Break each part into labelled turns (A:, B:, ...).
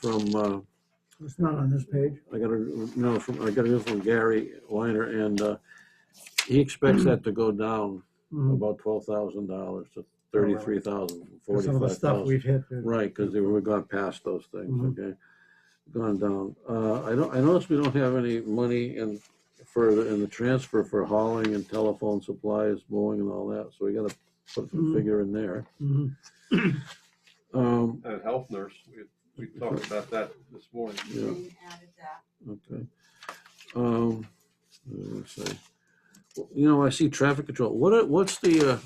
A: from, uh,
B: It's not on this page.
A: I got a, no, from, I got a note from Gary Weiner, and uh, he expects that to go down
C: Mm-hmm.
B: Mhm.
A: about twelve thousand dollars to thirty-three thousand,
B: Some of the
A: forty-five
B: stuff
A: thousand.
B: we've hit. there.
A: Right, because they were gone past those things,
B: Mhm.
A: okay? Gone down. Uh, I don't, I noticed we don't have any money in, for, the- in the transfer for hauling and telephone supplies, mowing and all that, so we gotta put some
B: Mhm.
A: figure in there.
B: Mhm.
A: Um,
C: And health nurse, we, we talked about that this morning.
A: Yeah.
D: and added that.
A: Okay. Um, let's see. You know, I see traffic control. What, are- what's the, uh,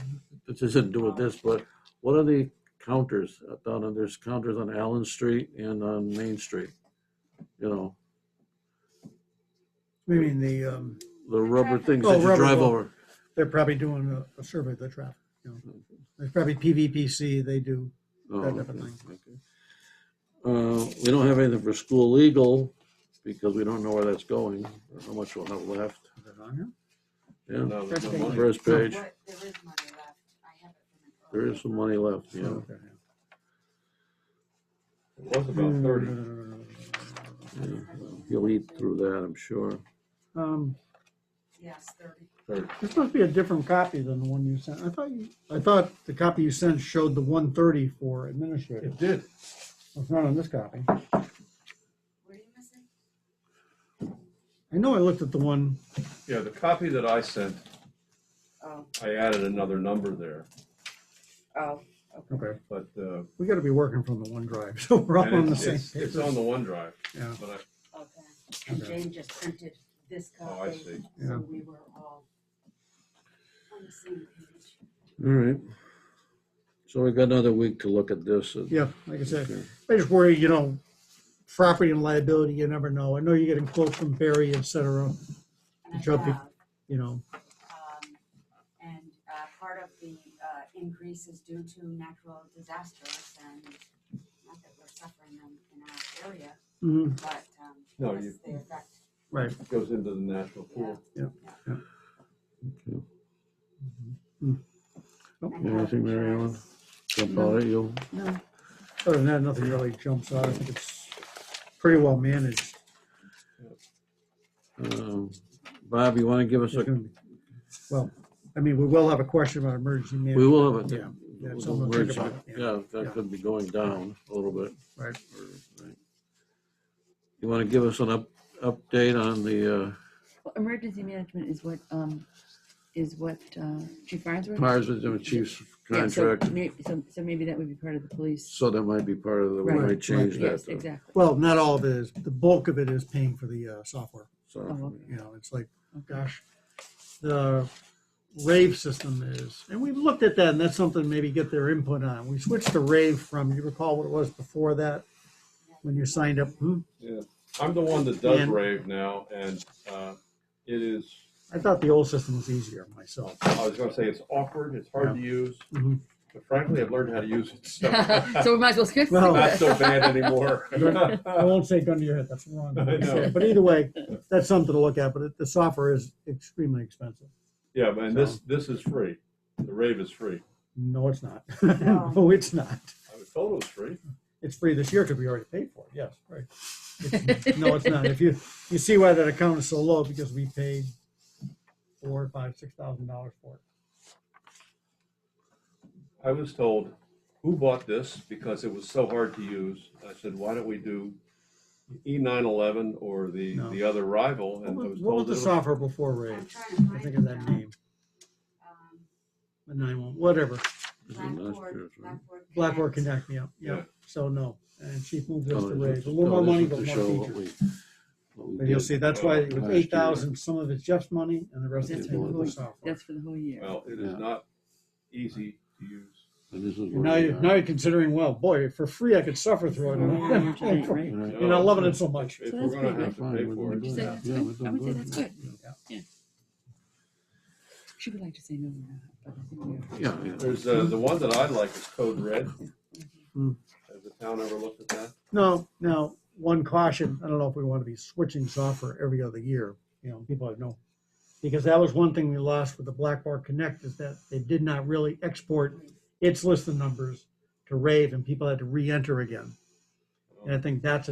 A: this isn't do with this, but what are the counters down on, there's counters on Allen Street and on Main Street? You know,
B: I mean, the, um,
A: the rubber
D: Traffic.
A: things
B: Oh,
A: that you
B: rubber
A: drive
B: wall.
A: over.
B: they're probably doing a- a survey of the traffic. you know. There's probably PVPC, they do.
A: Oh,
B: That
A: okay,
B: type of
A: okay. Uh, we don't have anything for school legal because we don't know where that's going, or how much we'll have left.
B: Is it on here?
A: Yeah,
C: No, there's no
B: First
C: money.
A: first page,
D: What, there is money left. I have it from an
A: there
D: earlier.
A: is some money left, yeah.
B: Oh, okay, yeah.
C: It was
B: Hmm.
C: about thirty.
A: Yeah, well, He'll eat through that, I'm sure.
B: Um,
D: Yes, thirty.
B: This must be a different copy than the one you sent. I thought you, I thought the copy you sent showed the one thirty for administrative.
C: It did.
B: It's not on this copy.
D: What are you missing?
B: I know I looked at the one,
C: Yeah, the copy that I sent,
D: Oh,
C: I added another number there,
D: oh,
B: okay,
C: but, uh,
B: we gotta be working from the OneDrive, so we're all
C: and
B: on the
C: it's-
B: same
C: it's- It's
B: paper.
C: on the OneDrive,
B: Yeah.
C: but I,
D: okay. And
B: Okay.
D: Jane just printed this
C: oh, I
D: copy,
C: see.
B: Yeah.
D: so we were all on the same page.
A: All right. So we've got another week to look at this. and-
B: Yeah, like I said,
A: Okay.
B: I just worry, you know, property and liability, you never know. I know you're getting quotes from Barry, et cetera,
D: And I
B: Job be-
D: have,
B: you know,
D: um, and, uh, part of the, uh, increase is due to natural disasters and not that we're suffering them in our area,
B: mhm,
D: but, um,
C: No,
D: yes,
C: you-
D: they affect,
B: right.
C: It Goes into the national
D: yeah.
C: pool.
A: Okay.
D: and
A: Yeah, I
D: health
A: think Mary Ellen.
D: insurance.
A: Jump out at you.
B: No, Other than that, nothing really jumps out. I think it's pretty well managed.
A: Um, Bob, you want to give us
B: It's
A: a,
B: gonna be- Well, I mean, we will have a question about emergency
A: we
B: management.
A: will have a.
B: Yeah, yeah, so we'll
A: Word
B: think about
A: doc.
B: it, yeah.
A: Yeah, that could be going down a little bit.
B: Right.
A: Or- right. You want to give us an up, update on the uh,
E: Well, Emergency management is what, um, is what, uh, Chief Barnes. was-
A: fires and the chief's
E: Yeah, so
A: contract?
E: may- So, so maybe that would be part of the police.
A: So that might be part of the, we
E: Right,
A: might change
B: right,
A: that.
E: Yes,
A: though.
E: exactly.
B: Well, not all of it is, the bulk of it is paying for the uh, software.
A: So,
E: Oh,
B: You know, it's like,
E: okay.
B: gosh, the rave system is, and we've looked at that and that's something maybe get their input on. We switched to rave from, you recall what it was before that? When you signed up, Hmm?
C: I'm the one that does
B: And-
C: rave now, and, uh, it is,
B: I thought the old system was easier myself.
C: I was gonna say, it's awkward, it's hard to use,
B: Mhm.
C: but frankly, I've learned how to use it, so.
E: So we might as well skip.
B: Well-
C: Not so bad anymore.
B: I won't say gun to your head, that's wrong.
C: I know.
B: But either way, that's something to look at, but it- the software is extremely expensive.
C: Yeah, but and this, this is free. The rave is free.
B: No, it's not.
D: No.
B: No, it's not.
C: I was told it was free.
B: It's free this year because we already paid for it, yes, right. It's- No, it's not. If you, you see why that account is so low, because we paid four, five, six thousand dollars for it.
C: I was told, who bought this because it was so hard to use? I said, why don't we do E nine eleven or the,
B: No.
C: the other rival?
B: What
C: And I
B: was-
C: was
B: what was
C: told,
B: the
C: it was-
B: software before
D: I'm
B: Rage?
D: trying to find
B: I think of that
D: it now.
B: name,
D: Um,
B: the nine one, whatever.
A: this is last
D: Blackboard,
A: year's, right?
D: Blackboard.
B: Blackboard
D: Connect.
B: Connect, yeah, yeah.
C: Yeah.
B: So no, and Chief moved us
A: Oh,
B: to
A: this
B: Rage.
A: is-
B: A little
A: oh,
B: more
A: this
B: money,
A: is
B: but
A: to
B: more
A: show what
B: features.
A: we- what we
B: And you'll
A: did.
B: see, that's why it
A: Last
B: was
A: year.
B: eight thousand, some of it's Jeff's money and the rest
E: That's
B: is
E: for the
B: taken
A: Well,
E: whole,
B: with the software.
E: that's for the whole year.
C: well, it is
A: Yeah.
C: not easy to use.
A: And this is
B: And
A: where
B: Now
A: we
B: you're,
A: are.
B: now you're considering, well, boy, for free I could suffer
E: We're
B: through
E: on here tonight,
B: it.
E: right?
A: All right.
B: You're not loving it so much.
C: If
E: So
C: we're
E: that's
C: gonna
E: pretty
C: have to pay for
E: You
C: it.
E: said that's good. I would say that's good.
B: Yeah.
E: Yeah. She would like to say no, we're not, but I think we are.
A: Yeah, yeah.
C: There's, uh, the one that I like is Code Red.
B: Hmm.
C: Has the town ever looked at that?
B: No, now, one caution, I don't know if we want to be switching software every other year, you know, people have no. Because that was one thing we lost with the Black Bar Connect is that they did not really export its list of numbers to Rave and people had to re-enter again. And I think that's a